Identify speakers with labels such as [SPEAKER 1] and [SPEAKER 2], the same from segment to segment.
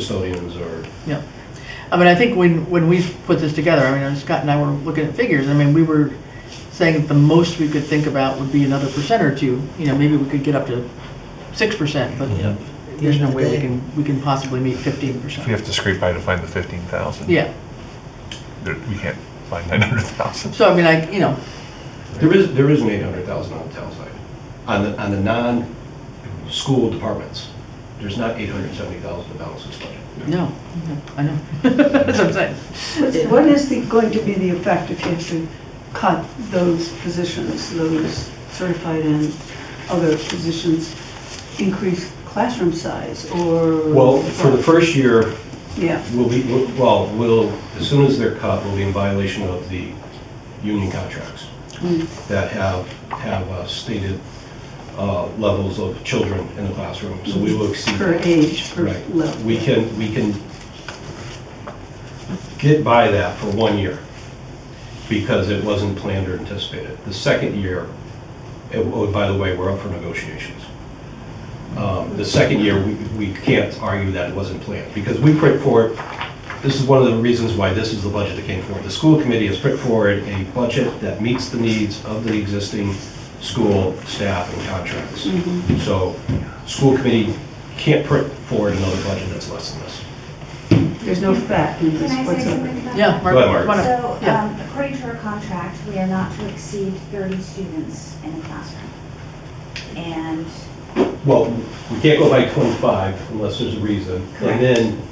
[SPEAKER 1] custodians or,
[SPEAKER 2] Yeah. I mean, I think when, when we put this together, I mean, Scott and I were looking at figures, I mean, we were saying that the most we could think about would be another percent or two, you know, maybe we could get up to six percent, but
[SPEAKER 3] Yeah.
[SPEAKER 2] there's no
[SPEAKER 4] Yeah,
[SPEAKER 2] way we
[SPEAKER 4] they-
[SPEAKER 2] can, we can possibly meet fifteen
[SPEAKER 5] We
[SPEAKER 2] percent.
[SPEAKER 5] have to scrape by to find the fifteen thousand.
[SPEAKER 2] Yeah,
[SPEAKER 5] We can't find nine hundred thousand.
[SPEAKER 2] so I mean, like, you know,
[SPEAKER 1] there is, there is an eight hundred thousand on the town side. On the, on the non-school departments, there's not eight hundred seventy thousand to balance this budget.
[SPEAKER 2] no, no, I know, that's what I'm saying.
[SPEAKER 4] What's- What is the, going to be the effect if you have to cut those positions, those certified and other positions, increase classroom size or?
[SPEAKER 1] Well, for the first year,
[SPEAKER 4] Yeah,
[SPEAKER 1] we'll be, we'll- well, we'll, as soon as they're cut, we'll be in violation of the union contracts
[SPEAKER 4] Mm.
[SPEAKER 1] that have, have uh, stated uh, levels of children in the classroom, so we will exceed
[SPEAKER 4] per
[SPEAKER 1] that.
[SPEAKER 4] age, per
[SPEAKER 1] Right.
[SPEAKER 4] level.
[SPEAKER 1] We can, we can get by that for one year because it wasn't planned or anticipated. The second year, it- oh, by the way, we're up for negotiations. Um, The second year, we we can't argue that it wasn't planned because we put forward, this is one of the reasons why this is the budget that came forward. The school committee has put forward a budget that meets the needs of the existing school staff and contracts.
[SPEAKER 4] Mm-hmm.
[SPEAKER 1] So, school committee can't put forward another budget that's less than this.
[SPEAKER 4] There's no fact in
[SPEAKER 6] Can
[SPEAKER 4] this
[SPEAKER 6] I say something
[SPEAKER 4] whatsoever.
[SPEAKER 6] about that?
[SPEAKER 2] Yeah, Mark,
[SPEAKER 1] Go ahead, Mark.
[SPEAKER 2] come on up.
[SPEAKER 6] So,
[SPEAKER 2] Yeah.
[SPEAKER 6] um, according to our contract, we are not to exceed 30 students in a classroom. And,
[SPEAKER 1] Well, we can't go by 25 unless there's a reason,
[SPEAKER 6] Correct.
[SPEAKER 1] and then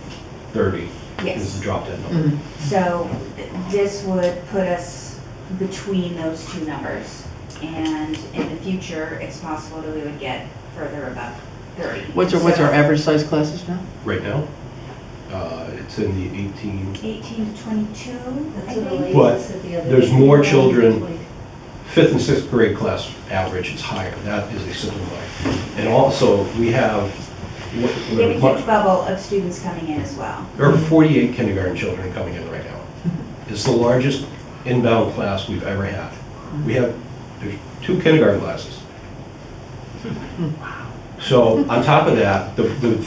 [SPEAKER 1] 30 is the
[SPEAKER 6] yes,
[SPEAKER 1] drop dead number.
[SPEAKER 2] Mhm.
[SPEAKER 6] so th- this would put us between those two numbers. And in the future, it's possible that we would get further above 30.
[SPEAKER 2] What's our, what's our average size classes now?
[SPEAKER 6] Mm-hmm.
[SPEAKER 1] Right now, uh, it's in the 18,
[SPEAKER 6] 18 to 22, I
[SPEAKER 7] That's what the
[SPEAKER 6] think.
[SPEAKER 7] lady
[SPEAKER 1] But
[SPEAKER 7] said the other
[SPEAKER 1] there's
[SPEAKER 7] day.
[SPEAKER 1] more children- fifth and sixth grade class average is higher. That is a simple way. And also, we have, what-
[SPEAKER 6] We have a
[SPEAKER 1] what-
[SPEAKER 6] huge bubble of students coming in as well.
[SPEAKER 1] there are 48 kindergarten children coming in right now. It's the largest inbound class we've ever had. We have, there's two kindergarten classes. So on top of that, the, the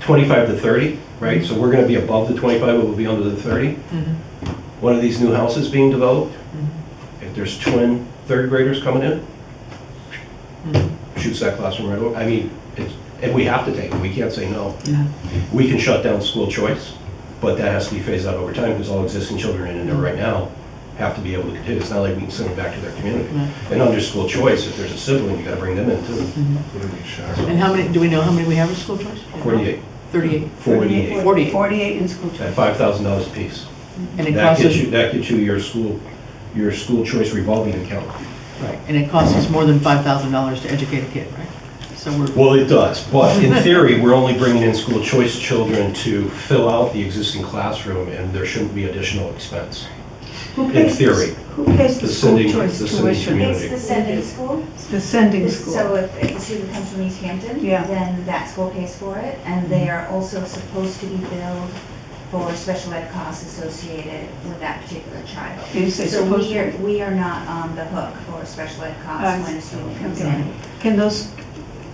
[SPEAKER 1] 25 to 30, right? So we're gonna be above the 25, but we'll be under the 30. One of these new houses being developed, if there's twin third graders coming in, shoots that classroom right away. I mean, it's, and we have to take it, we can't say no.
[SPEAKER 2] Yeah.
[SPEAKER 1] We can shut down school choice, but that has to be phased out over time because all existing children in there right now have to be able to continue. It's not like we can send them back to their community.
[SPEAKER 2] Right.
[SPEAKER 1] And under school choice, if there's a sibling, you gotta bring them in too.
[SPEAKER 2] And how many, do we know how many we have in school choice?
[SPEAKER 1] 48,
[SPEAKER 2] Thirty-eight,
[SPEAKER 1] 48,
[SPEAKER 2] Forty-eight.
[SPEAKER 4] Forty-eight in school choice.
[SPEAKER 1] at $5,000 apiece.
[SPEAKER 2] and it
[SPEAKER 1] That
[SPEAKER 2] costs
[SPEAKER 1] gets you,
[SPEAKER 2] us,
[SPEAKER 1] that gets you your school, your school choice revolving account.
[SPEAKER 2] right, and it costs us more than five thousand dollars to educate a kid, right? So we're.
[SPEAKER 1] Well, it does, but in theory, we're only bringing in school choice children to fill out the existing classroom, and there shouldn't be additional expense.
[SPEAKER 4] Who
[SPEAKER 1] in
[SPEAKER 4] pays the s-
[SPEAKER 1] theory,
[SPEAKER 4] Who pays the
[SPEAKER 1] the
[SPEAKER 4] school
[SPEAKER 1] sending-
[SPEAKER 4] choice
[SPEAKER 1] the sending
[SPEAKER 4] tuition?
[SPEAKER 1] community.
[SPEAKER 6] It's the sending school.
[SPEAKER 4] The sending
[SPEAKER 6] This- So
[SPEAKER 4] school.
[SPEAKER 6] if, if a student comes from East Hampton,
[SPEAKER 4] Yeah. Mm-hmm.
[SPEAKER 6] then that school pays for it, and they are also supposed to be billed for special ed costs associated with that particular child.
[SPEAKER 4] You say
[SPEAKER 6] So
[SPEAKER 4] supposed
[SPEAKER 6] we are,
[SPEAKER 4] to.
[SPEAKER 6] we are not on the hook for special ed
[SPEAKER 4] I
[SPEAKER 6] costs when a student comes
[SPEAKER 4] okay.
[SPEAKER 6] in.
[SPEAKER 4] Can those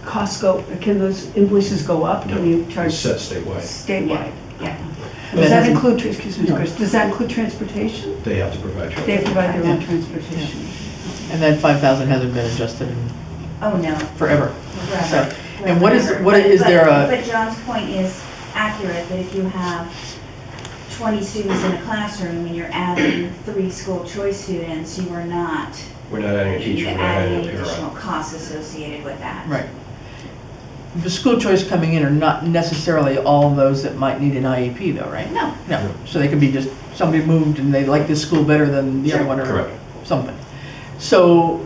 [SPEAKER 4] costs go, can those invoices go up? Can you
[SPEAKER 1] It's
[SPEAKER 4] charge
[SPEAKER 1] set statewide.
[SPEAKER 4] statewide?
[SPEAKER 6] Yeah,
[SPEAKER 4] Does
[SPEAKER 2] That
[SPEAKER 4] that
[SPEAKER 2] isn't-
[SPEAKER 4] include, excuse me,
[SPEAKER 2] No.
[SPEAKER 4] Chris, does that include transportation?
[SPEAKER 1] They have to provide
[SPEAKER 4] They
[SPEAKER 1] children.
[SPEAKER 4] provide their own
[SPEAKER 2] Yeah.
[SPEAKER 4] transportation.
[SPEAKER 2] And that five thousand hasn't been adjusted in
[SPEAKER 6] oh, no.
[SPEAKER 2] forever.
[SPEAKER 6] Right.
[SPEAKER 2] So, and what is- what
[SPEAKER 6] But-
[SPEAKER 2] is
[SPEAKER 6] but-
[SPEAKER 2] there
[SPEAKER 4] uh,
[SPEAKER 2] a-
[SPEAKER 6] But John's point is accurate, that if you have 20 students in a classroom and you're adding three school choice students, you are not
[SPEAKER 1] We're not adding a teacher, we're not adding
[SPEAKER 6] adding
[SPEAKER 1] a
[SPEAKER 6] additional
[SPEAKER 1] parent.
[SPEAKER 6] costs associated with that.
[SPEAKER 2] Right. The school choice coming in are not necessarily all those that might need an IEP though, right?
[SPEAKER 6] No,
[SPEAKER 2] No, so they could be just, somebody moved and they like this school better than the other
[SPEAKER 6] Sure.
[SPEAKER 2] one or
[SPEAKER 1] Correct.
[SPEAKER 2] something. So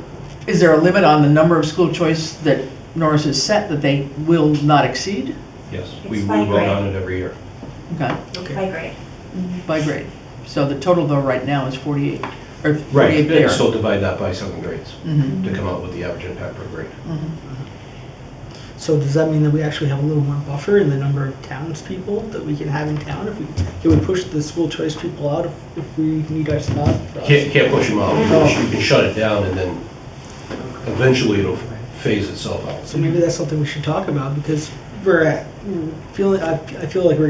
[SPEAKER 2] is there a limit on the number of school choice that Norris has set that they will not exceed?
[SPEAKER 1] Yes, we we
[SPEAKER 6] It's by
[SPEAKER 1] vote
[SPEAKER 6] grade.
[SPEAKER 1] on it every year.
[SPEAKER 2] Okay,
[SPEAKER 6] by grade.
[SPEAKER 2] by grade. So the total though right now is 48, or 48
[SPEAKER 1] Right,
[SPEAKER 2] there.
[SPEAKER 1] and so divide that by seven grades
[SPEAKER 2] Mhm,
[SPEAKER 1] to come out with the average impact per grade.
[SPEAKER 2] mhm.
[SPEAKER 3] So does that mean that we actually have a little more buffer in the number of townspeople that we can have in town? If we, can we push the school choice people out if, if we need our spot? for us?
[SPEAKER 1] Can't, can't push them out, You
[SPEAKER 6] Mm-hmm.
[SPEAKER 1] can- you can shut it down and then eventually it'll phase itself out.
[SPEAKER 3] So maybe that's something we should talk about because we're at, feeling, I I feel like we're